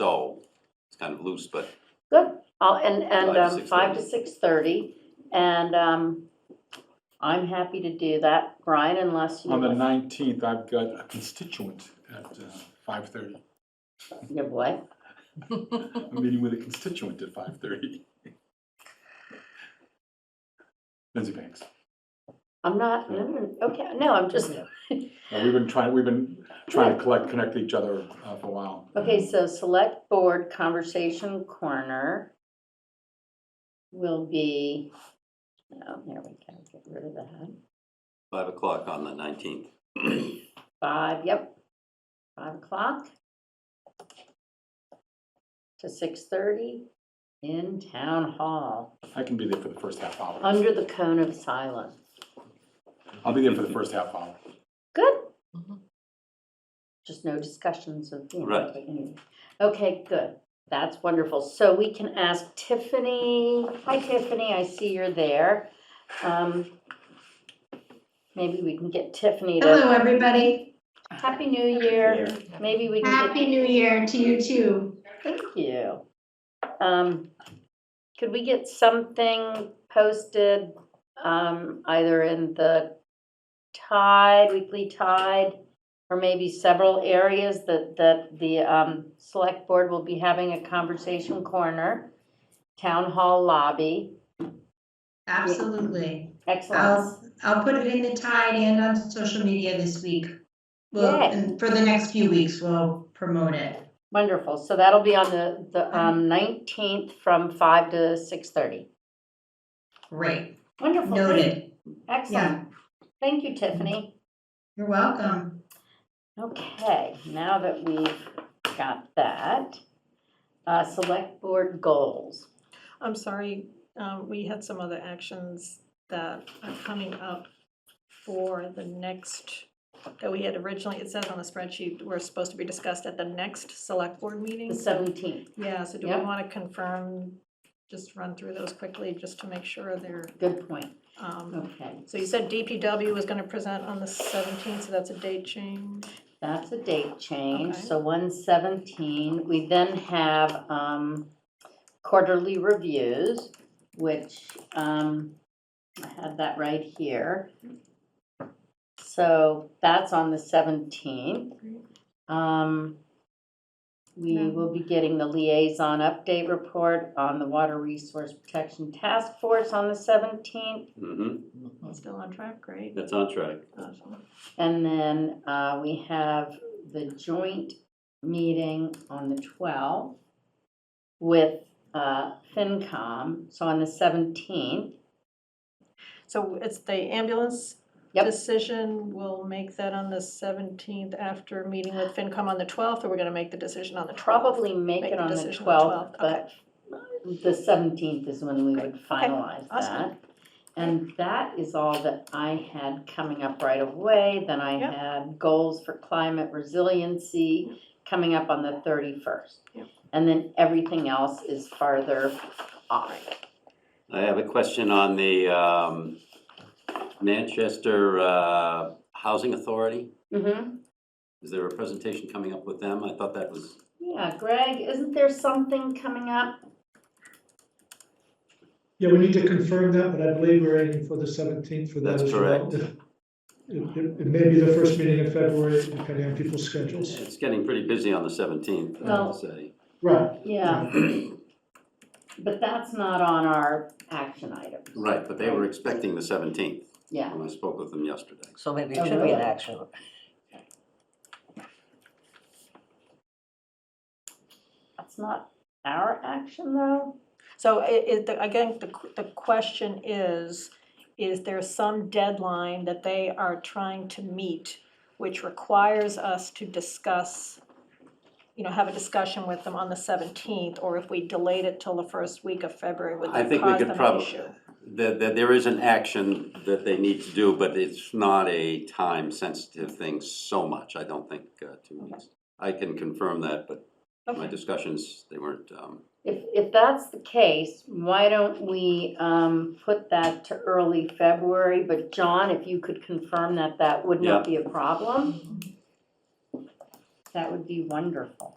so, it's kind of loose, but Good, I'll, and, and, Five to um, five to six thirty, and, um, I'm happy to do that, Brian, unless you. On the nineteenth, I've got a constituent at uh, five thirty. Your what? I'm meeting with a constituent at five thirty. Lindsay Banks. I'm not, no, no, no, okay, no, I'm just, Uh, We've been trying, we've been trying to collect, connect each other uh, for a while. okay, so select board conversation corner will be, oh, there we go, get rid of that. five o'clock on the nineteenth. Five, yep, five o'clock to six thirty in town hall, I can be there for the first half hour. under the cone of silence. I'll be there for the first half hour. Good. Mhm. Just no discussions of, you know, Right. taking- okay, good. That's wonderful. So we can ask Tiffany, hi Tiffany, I see you're there. Um, Maybe we can get Tiffany Hello, to, everybody. Happy New Year. Maybe we can get Happy New Year to you too. Thank you. Um, could we get something posted, um, either in the Tide, Weekly Tide, or maybe several areas that, that the, um, select board will be having a conversation corner, town hall lobby, Absolutely. excellent. I'll, I'll put it in the tide and on social media this week. Well, Yay. and for the next few weeks, we'll promote it. Wonderful, so that'll be on the, the, um, nineteenth from five to six-thirty. Great. Wonderful. Noted. Excellent. Thank you, Tiffany. You're welcome. Okay, now that we've got that, uh, select board goals. I'm sorry, um, we had some other actions that are coming up for the next, that we had originally, it says on the spreadsheet, were supposed to be discussed at the next select board The meeting. seventeenth, Yeah, so do we Yeah. want to confirm, just run through those quickly, just to make sure they're, good point, um, okay, so you said DPW was gonna present on the seventeenth, so that's a date change. that's a date change, Okay. so one seventeen, we then have, um, quarterly reviews, which, um, I have that right here. So that's on the seventeenth. Um, we Yeah. will be getting the liaison update report on the Water Resource Protection Task Force on the seventeenth. Mm-hmm, Oh. Still on track, great. that's on track. Awesome. And then, uh, we have the joint meeting on the twelfth with, uh, FinCom, so on the seventeenth. So it's the ambulance Yep. decision, we'll make that on the 17th after meeting with FinCom on the 12th, or we're going to make the decision on the 12th? Probably make Make it the on the decision on twelfth, the 12th, but the seventeenth is when we would finalize awesome. that. And that is all that I had coming up right away, then I Yep. had goals for climate resiliency coming up on the thirty-first. Yep. And then everything else is farther off. I have a question on the um, Manchester uh, Housing Authority. Mm-hmm, Is there a presentation coming up with them? I thought that was, yeah, Greg, isn't there something coming up? Yeah, we need to confirm that, but I believe we're aiming for the seventeenth for that That's as well. correct. It, it- it may be the first meeting in February, depending on people's schedules. it's getting pretty busy on the seventeenth, I Well- have to say. Right. Yeah, but that's not on our action items. Right, but they were expecting the seventeenth Yeah, when I spoke with them yesterday. So maybe Oh, it should be really? an action. that's not our action though. So i- i- the- again, the qu- the question is, is there some deadline that they are trying to meet, which requires us to discuss, you know, have a discussion with them on the 17th, or if we delayed it till the first week of February, would I that think we cause could them an probably, issue? that, that there is an action that they need to do, but it's not a time-sensitive thing so much, I don't think, uh, two weeks. I can confirm that, but my Okay. discussions, they weren't, um, If, if that's the case, why don't we, um, put that to early February? But John, if you could confirm that that would not be a problem, that would be wonderful.